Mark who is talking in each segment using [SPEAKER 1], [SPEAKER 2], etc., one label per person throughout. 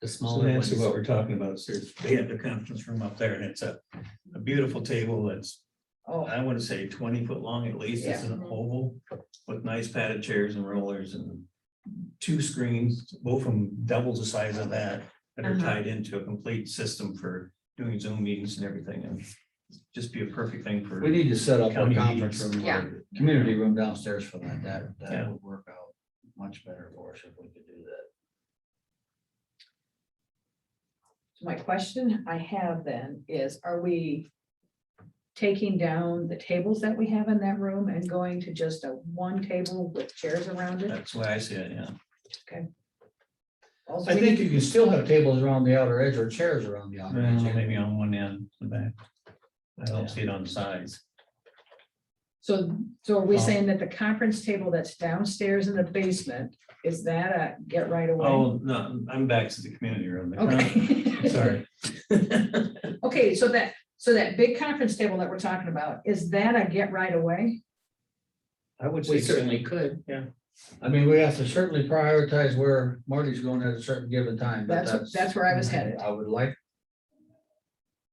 [SPEAKER 1] the
[SPEAKER 2] So
[SPEAKER 1] smaller
[SPEAKER 2] that's what
[SPEAKER 1] ones.
[SPEAKER 2] we're talking about, sir. They have the conference room up there and it's a, a beautiful table that's,
[SPEAKER 3] Oh,
[SPEAKER 2] I want to say twenty foot long at least. It's an oval with nice padded chairs and rollers and two screens, both of them double the size of that, that are
[SPEAKER 4] Uh-huh.
[SPEAKER 2] tied into a complete system for doing Zoom meetings and everything. And just be a perfect thing for.
[SPEAKER 1] We need to set up a
[SPEAKER 2] County
[SPEAKER 1] conference
[SPEAKER 2] meetings.
[SPEAKER 1] room,
[SPEAKER 4] Yeah.
[SPEAKER 1] or community room downstairs for that. That, that
[SPEAKER 2] Yeah.
[SPEAKER 1] would work out much better for us if we could do that.
[SPEAKER 3] so my question I have then is, are we taking down the tables that we have in that room and going to just a one table with chairs around it?
[SPEAKER 2] That's why I say, it, yeah.
[SPEAKER 3] Also,
[SPEAKER 1] I
[SPEAKER 3] we
[SPEAKER 1] think
[SPEAKER 3] need-
[SPEAKER 1] you can still have tables around the outer edge or chairs around the outer
[SPEAKER 2] Well, Maybe
[SPEAKER 1] edge.
[SPEAKER 2] on one end, the back. I don't see it on the sides.
[SPEAKER 3] So, so are we
[SPEAKER 2] Oh.
[SPEAKER 3] saying that the conference table that's downstairs in the basement, is that a get right away?
[SPEAKER 2] Oh, no, I'm back to the community room. The con-
[SPEAKER 3] Okay.
[SPEAKER 2] Sorry,
[SPEAKER 3] Okay, so that, so that big conference table that we're talking about, is that a get right away?
[SPEAKER 2] I would
[SPEAKER 1] We
[SPEAKER 2] say
[SPEAKER 1] certainly
[SPEAKER 2] certainly,
[SPEAKER 1] could.
[SPEAKER 2] yeah.
[SPEAKER 1] I mean, we have to certainly prioritize where Marty's going at a certain given time, but
[SPEAKER 3] That's,
[SPEAKER 1] that's.
[SPEAKER 3] that's where I was headed.
[SPEAKER 1] I would like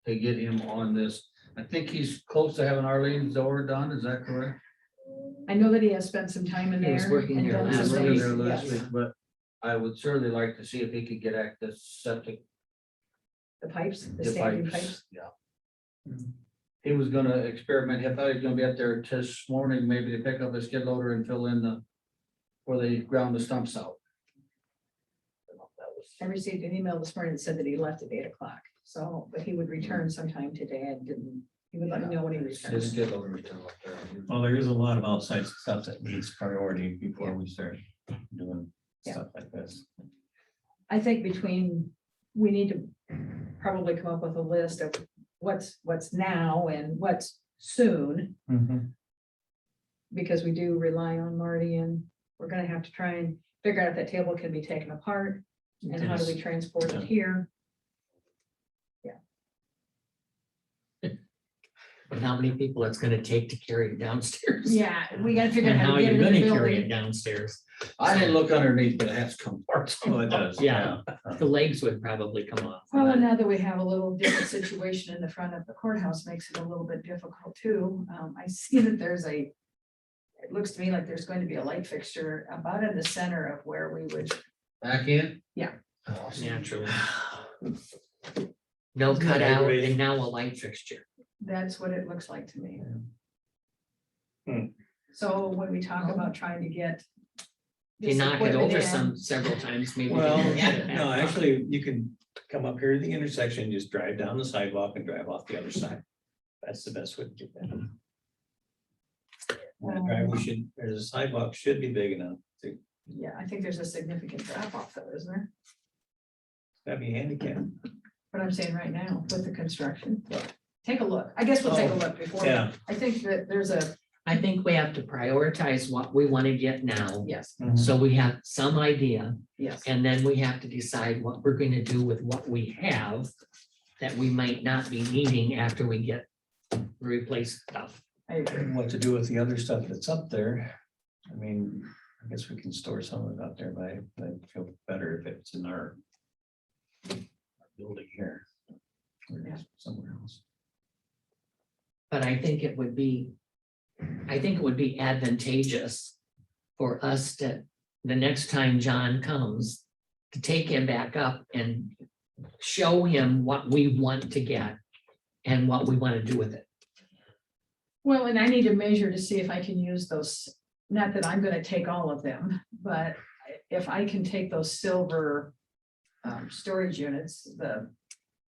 [SPEAKER 1] to get him on this. I think he's close to having Arlene's door done, is that correct?
[SPEAKER 3] I know that he has spent some time in
[SPEAKER 4] He
[SPEAKER 3] there.
[SPEAKER 4] was working
[SPEAKER 3] and
[SPEAKER 4] here
[SPEAKER 3] done
[SPEAKER 1] I
[SPEAKER 4] last
[SPEAKER 3] some
[SPEAKER 1] was
[SPEAKER 4] week.
[SPEAKER 1] over
[SPEAKER 3] things,
[SPEAKER 1] there last
[SPEAKER 3] yes.
[SPEAKER 1] week, But I would certainly like to see if he could get at this septic
[SPEAKER 3] The pipes, the standing pipes.
[SPEAKER 1] device. Yeah. He was gonna experiment, he thought he was gonna be up there this morning, maybe to pick up his skid loader and fill in the, where they ground the stumps out.
[SPEAKER 3] I received an email this morning that said that he left at eight o'clock, so, but he would return sometime today and didn't, he would let me know when he
[SPEAKER 1] His
[SPEAKER 3] returns.
[SPEAKER 1] skid loader was down up there.
[SPEAKER 2] well, there is a lot of outside stuff that needs priority before we start doing
[SPEAKER 3] Yeah.
[SPEAKER 2] stuff like this.
[SPEAKER 3] I think between, we need to probably come up with a list of what's, what's now and what's soon,
[SPEAKER 2] Mm-hmm.
[SPEAKER 3] because we do rely on Marty and we're gonna have to try and figure out if that table can be taken apart and how do we transport it here?
[SPEAKER 4] And how many people it's gonna take to carry it downstairs?
[SPEAKER 3] Yeah, we gotta figure out
[SPEAKER 4] And
[SPEAKER 3] how
[SPEAKER 4] how
[SPEAKER 3] to get
[SPEAKER 4] you're
[SPEAKER 3] it in the
[SPEAKER 4] gonna carry it
[SPEAKER 3] building.
[SPEAKER 4] downstairs.
[SPEAKER 1] I didn't look underneath, but it has compartments.
[SPEAKER 2] Oh, it does.
[SPEAKER 4] Yeah. The legs would probably come off.
[SPEAKER 3] Well, and now that we have a little different situation in the front of the courthouse makes it a little bit difficult too. Um, I see that there's a. It looks to me like there's going to be a light fixture about in the center of where we would,
[SPEAKER 1] Back in?
[SPEAKER 3] Yeah.
[SPEAKER 4] Naturally. No
[SPEAKER 2] Isn't that
[SPEAKER 4] cutout
[SPEAKER 2] aggravating?
[SPEAKER 4] and now a light fixture.
[SPEAKER 3] that's what it looks like to me.
[SPEAKER 2] Hmm.
[SPEAKER 3] So when we talk about trying to get.
[SPEAKER 4] If you
[SPEAKER 3] this
[SPEAKER 4] knock it
[SPEAKER 3] equipment
[SPEAKER 4] over
[SPEAKER 3] in,
[SPEAKER 4] some several times, maybe. they
[SPEAKER 2] Well,
[SPEAKER 4] can get it
[SPEAKER 2] no,
[SPEAKER 4] back up.
[SPEAKER 2] actually, you can come up here to the intersection, just drive down the sidewalk and drive off the other side. That's the best way to get that.
[SPEAKER 3] Um,
[SPEAKER 2] And the driveway should, or the sidewalk should be big enough to,
[SPEAKER 3] Yeah, I think there's a significant drop off though, isn't there?
[SPEAKER 2] that'd be handicapped.
[SPEAKER 3] What I'm saying right now with the construction. Take a look. I guess we'll take a
[SPEAKER 2] Oh,
[SPEAKER 3] look before.
[SPEAKER 2] Yeah.
[SPEAKER 3] I think that there's a,
[SPEAKER 4] I think we have to prioritize what we want to get now.
[SPEAKER 3] yes,
[SPEAKER 4] So we have some idea
[SPEAKER 3] yes.
[SPEAKER 4] and then we have to decide what we're going to do with what we have that we might not be needing after we get replaced stuff.
[SPEAKER 3] I agree.
[SPEAKER 2] And What to do with the other stuff that's up there? I mean, I guess we can store some of it out there, but I- but I feel better if it's in our our building here.
[SPEAKER 3] Yeah.
[SPEAKER 2] Or somewhere else.
[SPEAKER 4] But I think it would be, I think it would be advantageous for us to, the next time John comes, to take him back up and show him what we want to get and what we want to do with it.
[SPEAKER 3] Well, and I need to measure to see if I can use those, not that I'm gonna take all of them, but if I can take those silver um, storage units, the,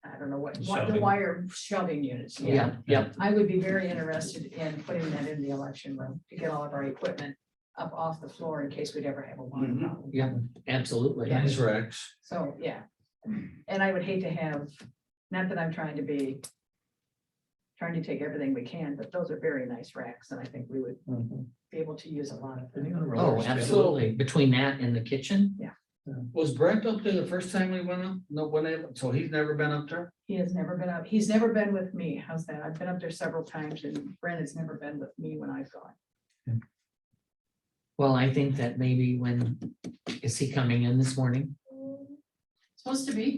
[SPEAKER 3] I don't know what, what- the
[SPEAKER 2] Shelving.
[SPEAKER 3] wire shoving units, yeah.
[SPEAKER 4] Yeah, yep.
[SPEAKER 3] I would be very interested in putting that in the election room to get all of our equipment up off the floor in case we'd ever have a water
[SPEAKER 1] Mhm.
[SPEAKER 3] problem.
[SPEAKER 4] Yep, absolutely.
[SPEAKER 1] Nice racks.
[SPEAKER 3] So, yeah. And I would hate to have, not that I'm trying to be. Trying to take everything we can, but those are very nice racks and I think we would be able to use a lot of them.
[SPEAKER 2] Any other
[SPEAKER 4] Mm-hmm. Oh,
[SPEAKER 2] rollers?
[SPEAKER 4] absolutely. Between that and the kitchen,
[SPEAKER 1] Was Brent up there the first time we went up? No, when they, so he's never been up there?
[SPEAKER 3] He has never been up, he's never been with me. How's that? I've been up there several times and Brent has never been with me when I've gone.
[SPEAKER 4] well, I think that maybe when, is he coming in this morning?
[SPEAKER 3] supposed to be